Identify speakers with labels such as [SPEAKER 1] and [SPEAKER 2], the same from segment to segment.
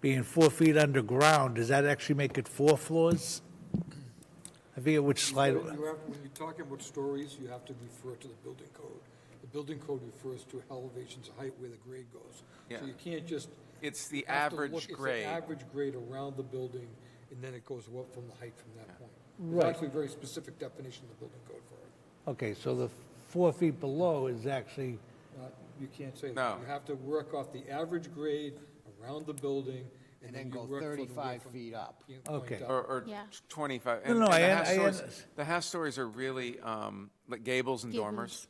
[SPEAKER 1] being four feet underground, does that actually make it four floors? I forget which slide,
[SPEAKER 2] When you have- when you're talking about stories, you have to refer to the building code. The building code refers to elevations of height where the grade goes.
[SPEAKER 3] Yeah.
[SPEAKER 2] So you can't just.
[SPEAKER 3] It's the
[SPEAKER 2] you have to
[SPEAKER 3] average
[SPEAKER 2] look- it's the
[SPEAKER 3] grade.
[SPEAKER 2] average grade around the building, and then it goes up from the height from that point.
[SPEAKER 1] Right.
[SPEAKER 2] There's actually a very specific definition in the building code for it.
[SPEAKER 1] okay, so the four feet below is actually,
[SPEAKER 2] Uh, You can't say that.
[SPEAKER 3] No.
[SPEAKER 2] You have to work off the average grade around the building, and
[SPEAKER 4] And
[SPEAKER 2] then
[SPEAKER 4] then
[SPEAKER 2] you
[SPEAKER 4] go
[SPEAKER 2] work from the width
[SPEAKER 4] 35
[SPEAKER 2] from-
[SPEAKER 4] feet up.
[SPEAKER 2] you point
[SPEAKER 1] Okay.
[SPEAKER 2] up.
[SPEAKER 3] Or, or
[SPEAKER 5] Yeah.
[SPEAKER 3] 25.
[SPEAKER 1] No, no, I un- I
[SPEAKER 3] stories,
[SPEAKER 1] un-
[SPEAKER 3] the half stories are really um, like gables and dormers.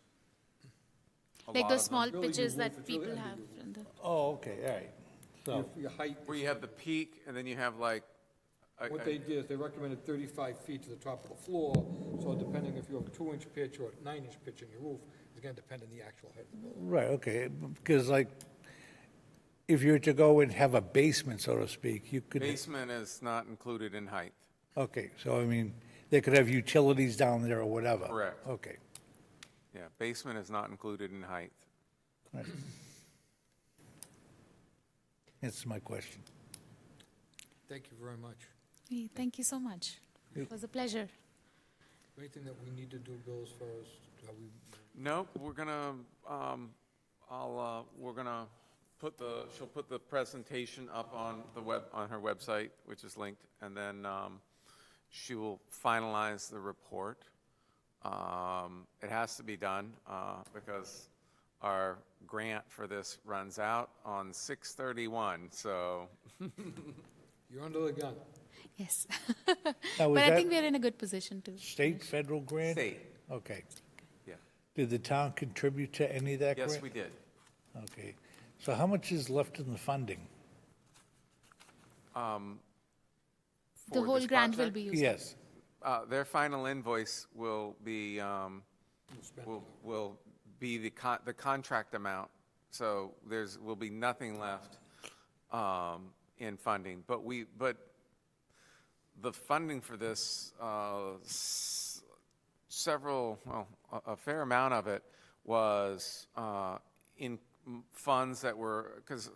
[SPEAKER 3] A
[SPEAKER 5] Like
[SPEAKER 3] lot of
[SPEAKER 5] those
[SPEAKER 3] them,
[SPEAKER 5] small
[SPEAKER 2] Really, you
[SPEAKER 5] pitches
[SPEAKER 2] move
[SPEAKER 5] that
[SPEAKER 2] it through
[SPEAKER 5] people
[SPEAKER 2] there
[SPEAKER 5] have.
[SPEAKER 2] and
[SPEAKER 5] in the-
[SPEAKER 1] oh, okay, all right. So,
[SPEAKER 2] Your- Your height
[SPEAKER 3] Where you have the peak and then you have like. a-
[SPEAKER 2] What
[SPEAKER 3] a-
[SPEAKER 2] they did is they recommended 35 feet to the top of the floor, so depending if you have a two-inch pitch or a nine-inch pitch in your roof, it's gonna depend on the actual height of the building.
[SPEAKER 1] right, okay, because like, if you were to go and have a basement, so to speak, you could,
[SPEAKER 3] Basement is not included in height.
[SPEAKER 1] okay, so I mean, they could have utilities down there or whatever.
[SPEAKER 3] Correct.
[SPEAKER 1] Okay.
[SPEAKER 3] Yeah, basement is not included in height.
[SPEAKER 1] That's my question.
[SPEAKER 2] Thank you very much.
[SPEAKER 5] Hey, thank you so much. It was a pleasure.
[SPEAKER 2] Anything that we need to do, Bill, as far as how we,
[SPEAKER 3] Nope, we're gonna, um, I'll, uh, we're gonna put the, she'll put the presentation up on the web, on her website, which is linked, and then, um, she will finalize the report. Um, it has to be done, uh, because our grant for this runs out on six thirty-one, so,
[SPEAKER 2] you're under the gun.
[SPEAKER 5] Yes.
[SPEAKER 1] Now,
[SPEAKER 5] but
[SPEAKER 1] is
[SPEAKER 5] I
[SPEAKER 1] that-
[SPEAKER 5] think we're in a good position to.
[SPEAKER 1] State, federal grant?
[SPEAKER 3] state,
[SPEAKER 1] Okay.
[SPEAKER 3] yeah.
[SPEAKER 1] Did the town contribute to any of that grant?
[SPEAKER 3] Yes, we did.
[SPEAKER 1] Okay. So how much is left in the funding?
[SPEAKER 5] The
[SPEAKER 3] For
[SPEAKER 5] whole
[SPEAKER 3] this
[SPEAKER 5] grant will
[SPEAKER 3] project?
[SPEAKER 5] be used.
[SPEAKER 1] Yes.
[SPEAKER 3] Uh, Their final invoice will be, um, will, will be the con, the contract amount. So there's, will be nothing left um, in funding. But we, but the funding for this, uh, s- several, well, a, a fair amount of it was uh, in m- funds that were, because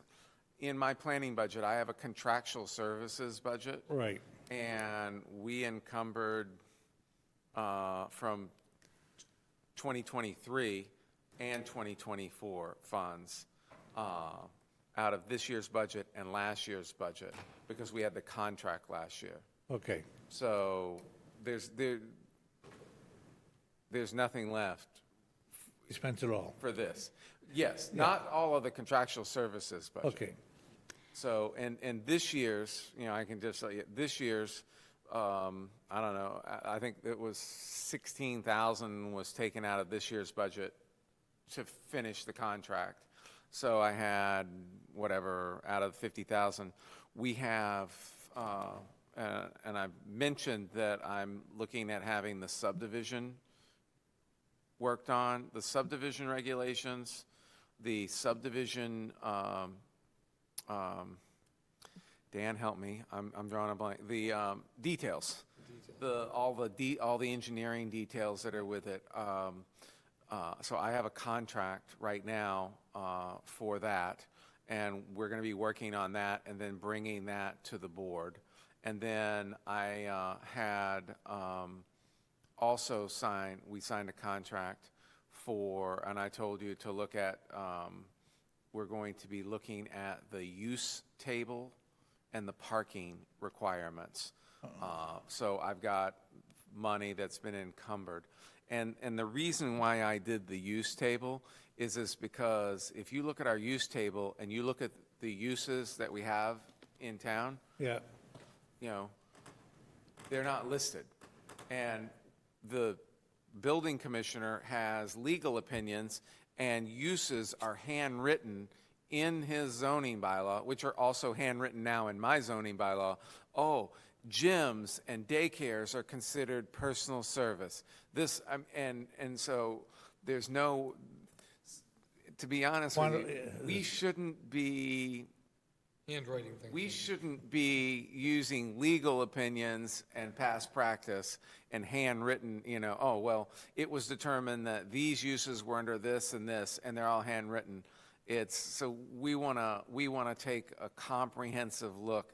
[SPEAKER 3] in my planning budget, I have a contractual services budget.
[SPEAKER 1] Right.
[SPEAKER 3] And we encumbered uh, from 2023 and 2024 funds uh, out of this year's budget and last year's budget, because we had the contract last year.
[SPEAKER 1] Okay.
[SPEAKER 3] So there's, there, there's nothing left
[SPEAKER 1] You spent it all.
[SPEAKER 3] for this. Yes, not all of the contractual services budget.
[SPEAKER 1] Okay.
[SPEAKER 3] So, and, and this year's, you know, I can just tell you, this year's, um, I don't know, I, I think it was sixteen thousand was taken out of this year's budget to finish the contract. So I had whatever out of fifty thousand. We have, uh, uh, and I've mentioned that I'm looking at having the subdivision worked on, the subdivision regulations, the subdivision, um, um, Dan, help me, I'm, I'm drawing a blank, the, um, details. The, all the de, all the engineering details that are with it. Um, uh, so I have a contract right now, uh, for that. And we're gonna be working on that and then bringing that to the board. And then I, uh, had, um, also signed, we signed a contract for, and I told you to look at, um, we're going to be looking at the use table and the parking requirements. Uh, So I've got money that's been encumbered. And, and the reason why I did the use table is is because if you look at our use table and you look at the uses that we have in town,
[SPEAKER 1] Yeah.
[SPEAKER 3] you know, they're not listed. And the building commissioner has legal opinions, and uses are handwritten in his zoning bylaw, which are also handwritten now in my zoning bylaw. Oh, gyms and daycares are considered personal service. This, um, and, and so there's no, to be honest with
[SPEAKER 1] Why
[SPEAKER 3] you, we shouldn't be
[SPEAKER 2] Handwriting thing.
[SPEAKER 3] we shouldn't be using legal opinions and past practice and handwritten, you know, oh, well, it was determined that these uses were under this and this, and they're all handwritten. It's, so we want to, we want to take a comprehensive look